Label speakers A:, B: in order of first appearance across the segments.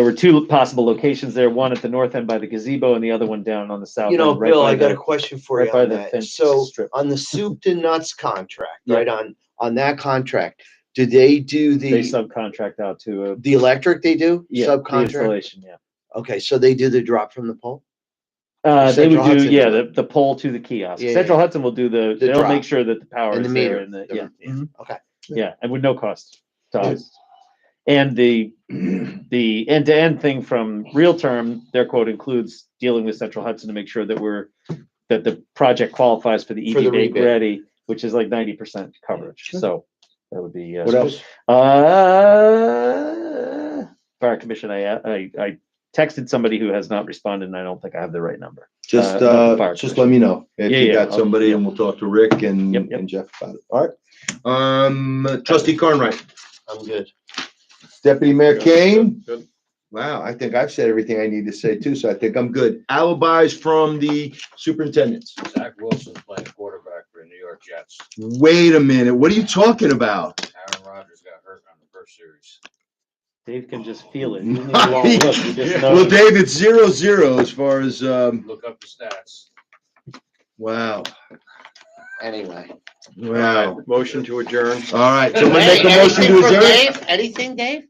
A: There were two possible locations there, one at the north end by the gazebo and the other one down on the south.
B: You know,
A: end, right
B: Bill,
A: by
B: I got
A: the-
B: a question for you
A: Right by
B: on
A: the
B: that.
A: fence
B: So
A: strip.
B: on the soup to nuts contract,
A: Yeah.
B: right, on, on that contract, do they do
A: They
B: the,
A: subcontract out to a.
B: the electric they do?
A: yeah, the
B: Subcontract?
A: Installation, yeah.
B: Okay, so they do the drop from the pole?
A: Uh, they
B: Central
A: would do,
B: Hudson.
A: yeah, the, the pole to the kiosk.
B: Yeah,
A: Central Hudson will do the,
B: The
A: they'll make
B: drop.
A: sure that the power
B: And the
A: is there
B: meter.
A: and the,
B: The-
A: yeah. yeah.
C: Mhm.
B: Okay.
A: Yeah, and with no cost to
C: Yeah.
A: us. And the, the end-to-end thing from real term, their quote includes dealing with Central Hudson to make sure that we're, that the project qualifies for the
B: For the
A: ED Make
B: rebid.
A: Ready, which is like ninety percent coverage,
C: Sure.
A: so that would be. uh,
B: What else?
A: Uh, Fire Commission, I, I, I texted somebody who has not responded and I don't think I have the right number.
C: Just,
A: Uh, uh, fire
C: uh, just let me know if
A: Yeah,
C: you
A: yeah,
C: got
A: I'll-
C: somebody and we'll talk to Rick and,
A: Yep, yep.
C: and Jeff about it. All right. Um, trustee Cornwright,
B: I'm good.
C: deputy mayor Kane.
D: Good.
C: Wow, I think I've said everything I need to say too, so I think I'm good. Alibis from the superintendents.
E: Zach Wilson's playing quarterback for the New York Jets.
C: Wait a minute, what are you talking about?
E: Aaron Rodgers got hurt on the first series.
A: Dave can just feel it. You need a long look, you just know.
C: Well, Dave, it's zero zero as far as, um,
E: Look up the stats.
C: wow,
B: Anyway.
C: wow.
D: Motion to adjourn.
C: All right, someone make a
B: Hey,
C: motion
B: anything
C: to
B: for
C: adjourn?
B: Dave? Anything, Dave?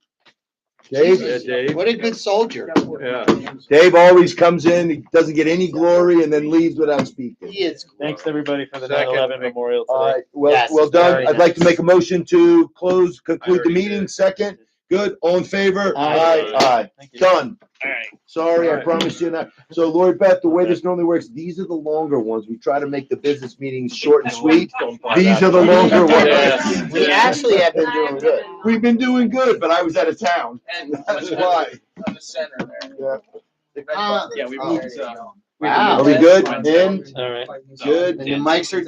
C: Dave,
D: Yeah, Dave.
B: What a good soldier.
D: Yeah.
C: Dave always comes in, he doesn't get any glory and then leaves without speaking.
B: He is.
A: Thanks, everybody, for the nine
D: Second.
A: eleven memorial
C: All
A: today.
C: right, well,
B: Yes,
C: well
A: very
C: done. I'd like to
A: nice.
C: make a motion to close, conclude the
D: already
C: meeting,
D: did.
C: second. Good, all in favor?
A: Aye.
C: Aye,
A: Thank
C: aye,
A: you.
C: done.
E: All right.
C: Sorry,
D: All
C: I
D: right.
C: promised you not. So Lori Beth, the way this normally works, these are the longer ones. We try to make the business meetings short and sweet. These are the longer
D: Yeah.
C: ones.
B: We actually have been doing good.
C: We've been doing good, but I was out of town.
E: And
C: That's why.
E: On the center there.
B: Ah,
E: Yeah, we
B: oh,
E: moved,
B: there you
E: uh,
B: go.
C: Are we good? In?
A: All right.
E: so-
C: Good.
B: And the mics are